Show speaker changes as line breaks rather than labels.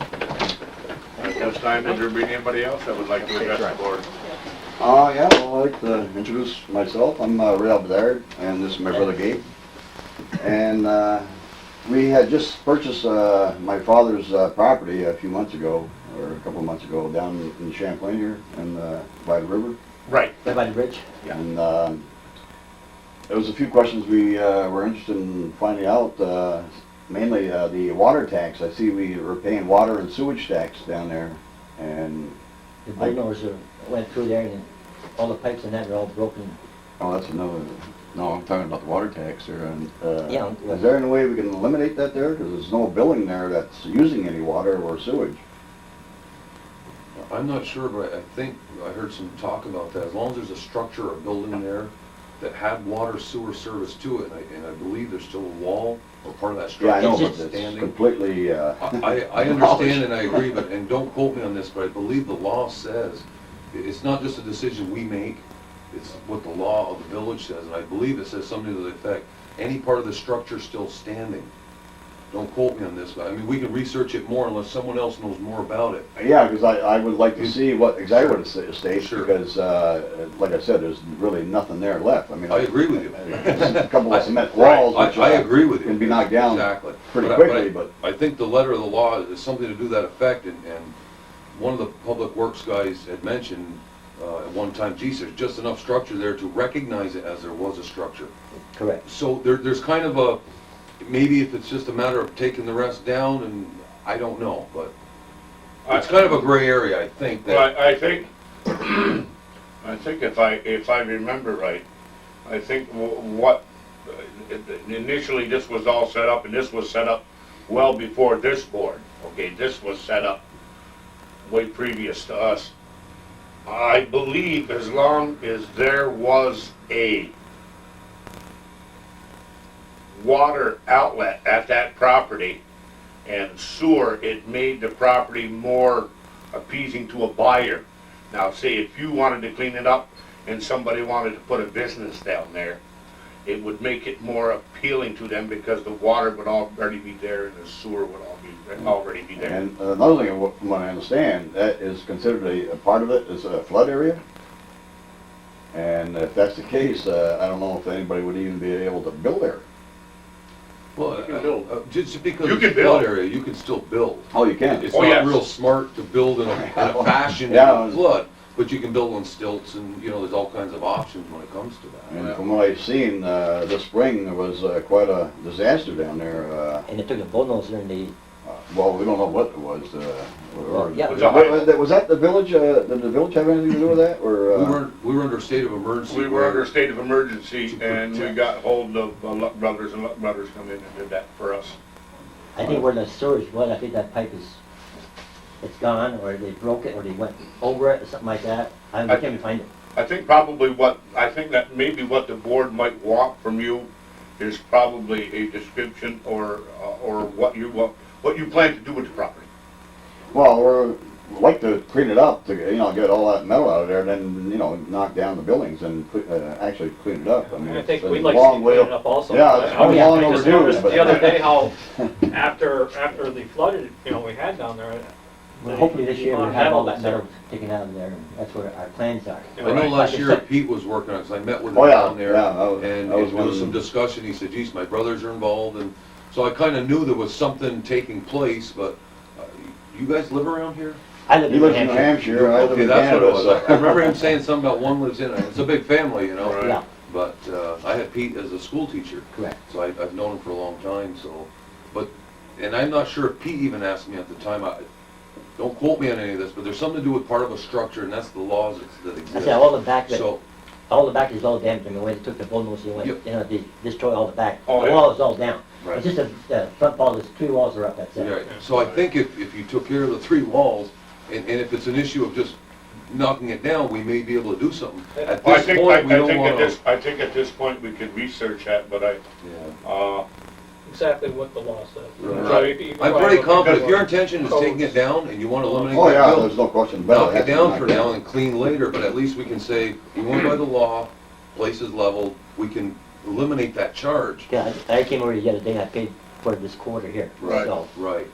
At this time, would there be anybody else that would like to address the board?
Uh, yeah, I'd like to introduce myself. I'm uh, Ray Bedard, and this is my brother Gabe. And uh, we had just purchased uh, my father's uh, property a few months ago, or a couple of months ago, down in Champlain here, and uh, by the river.
Right.
Right by the bridge?
Yeah.
And um, there was a few questions we uh, were interested in finding out, uh, mainly uh, the water tax. I see we were paying water and sewage tax down there, and,
The bulldozers went through there and all the pipes and that were all broken.
oh, that's another, no, I'm talking about the water tax there. and, uh,
Yeah.
Is there any way we can eliminate that there? Because there's no building there that's using any water or sewage.
I'm not sure, but I think, I heard some talk about that, as long as there's a structure or building there that had water sewer service to it, and I, and I believe there's still a wall or part of that
Yeah, I
structure
know,
It's
but
that's
just
it's
standing.
completely, uh,
I, I understand and I agree, but, and don't quote me on this, but I believe the law says, i- it's not just a decision we make, it's what the law of the village says, and I believe it says something to the effect, any part of the structure still standing. Don't quote me on this, but I mean, we can research it more unless someone else knows more about it.
Yeah, because I, I would like to see what, exactly what it states,
Sure.
because, uh, like I said, there's really nothing there left. I mean,
I agree with you.
it's a couple of cement walls,
I,
which
I
uh,
agree with you.
can be knocked down
Exactly.
pretty
I-
quickly,
I-
but-
I think the letter of the law is something to do that effect, and, and one of the public works guys had mentioned, uh, at one time, geez, there's just enough structure there to recognize it as there was a structure.
Correct.
So there, there's kind of a, maybe if it's just a matter of taking the rest down, and I don't know, but
Uh,
it's kind of a gray area, I think,
Well,
that,
I I think, I think if I, if I remember right, I think wh- what, uh, initially this was all set up, and this was set up well before this board, okay, this was set up way previous to us. I believe as long as there was a water outlet at that property and sewer, it made the property more appeasing to a buyer. Now, say if you wanted to clean it up and somebody wanted to put a business down there, it would make it more appealing to them because the water would already be there and the sewer would all be, already be there.
And another thing, wha- from what I understand, that is considered a, a part of it is a flood area. And if that's the case, uh, I don't know if anybody would even be able to build there.
well,
You can build.
uh, uh, just because
You
it's a
can build.
flood area, you can still build.
Oh, you can?
It's
Oh,
not
yes.
real smart to build in a, in a fashion in
Yeah.
a flood, but you can build on stilts and, you know, there's all kinds of options when it comes to
And
that.
from what I've seen, uh, this spring, there was uh, quite a disaster down there, uh,
And they took a bulldozer and they,
Uh, Well, we don't know what it was, uh, or...
Yeah.
Was that- Was that the village, uh, did the village have anything to do with that, or,
We
uh,
were, we were under a state of emergency.
We were under
where-
a state of emergency
To
and we
protect.
got hold of uh, Luck Brothers and Luck Brothers come in and did that for us.
I think where the sewage was, I think that pipe is, it's gone, or they broke it, or they went over it, or something like that. I
I-
can't find it.
I think probably what, I think that maybe what the board might want from you is probably a description or, uh, or what you, want- what you plan to do with the property.
well, we're, like to clean it up, to, you know, get all that metal out of there, and then, you know, knock down the buildings and, cle- uh, actually clean it up, I mean,
I
it's
think
been
we'd
a
like to
long
see
way.
cleaning up also.
Yeah, it's
I
been
yeah,
long
I just
overdue,
noticed
but-
the other day how, after, after the flooded, you know, we had down there,
Well, hopefully this year
Well,
we have all
that-
that metal taken out of there, and that's where our plans are.
you
I know
know,
Like
last
I
year
said-
Pete was working on it, 'cause I met with
Oh,
him
yeah,
down there.
yeah, that was-
And
that was
it- there was
one-
some discussion, he said, geez, my brothers are involved, and, so I kinda knew there was something taking place, but, uh, you guys live around here?
I live
He
in New
lives in New
Hampshire.
Hampshire, I live
Okay,
in
that's what it
Canada,
was, I I
so...
remember him saying something about one lives in, it. it's a big family, you know?
Right.
Yeah,
But uh, I had Pete as a school teacher,
correct.
so I, I've known him for a long time. So, but and I'm not sure if Pete even asked me at the time. I, don't quote me on any of this, but there's something to do with part of a structure, and that's the laws that, that
I
exist.
said, all the back, of it-
so
all the back is all damaged, I mean, when they took the bulldozer, they went,
Yep.
you know, they destroyed all the back. The
Oh, yeah.
wall is all down.
right,
It's just the, the front wall, there's three walls are up, that's it.
right. So I think if, if you took care of the three walls, and, and if it's an issue of just knocking it down, we may be able to do something. At
Well, I
this
think, I
point, we
I
don't
think at
want
this,
to.
I think at this point, we could research that, but I, uh,
exactly what the law says.
Right.
So if you-
I'm pretty confident. If your
Because-
intention is taking it down and you want to eliminate
Oh,
that
yeah,
building,
there's no question about
knock
it.
it
That's
down
been
for
knocked
now and clean later, but at least we can say, we went by the law, place is leveled, we can eliminate that charge.
Yeah, I I came over the other day, and I paid for this quarter here.
Right.
So,
Right,